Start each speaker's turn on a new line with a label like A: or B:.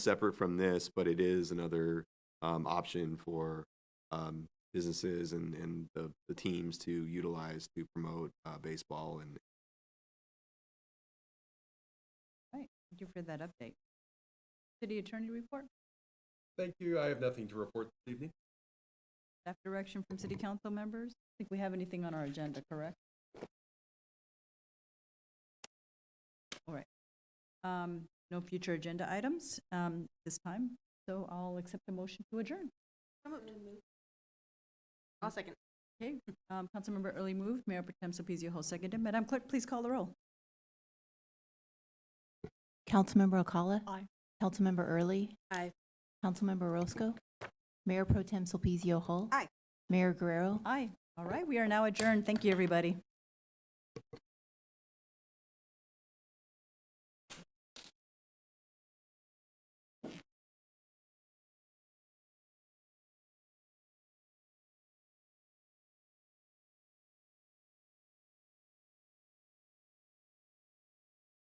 A: separate from this, but it is another um, option for um, businesses and, and the, the teams to utilize to promote uh, baseball and
B: Thank you for that update. City Attorney report,
C: Thank you. I have nothing to report this evening.
B: staff direction from city council members. I think we have anything on our agenda, correct? All right. Um, No future agenda items um, this time, so I'll accept the motion to adjourn.
D: I'll second.
B: Okay, um, Councilmember Early moved, Mayor Potem Sopiso Hall seconded. Madam Clerk, please call the roll.
E: Councilmember Ocala?
D: Aye.
E: Councilmember Early?
D: Aye.
E: Councilmember Roscoe? Mayor Pro Tem Sulpicio Hull?
D: Aye.
E: Mayor Guerrero?
B: Aye. All right, we are now adjourned. Thank you, everybody.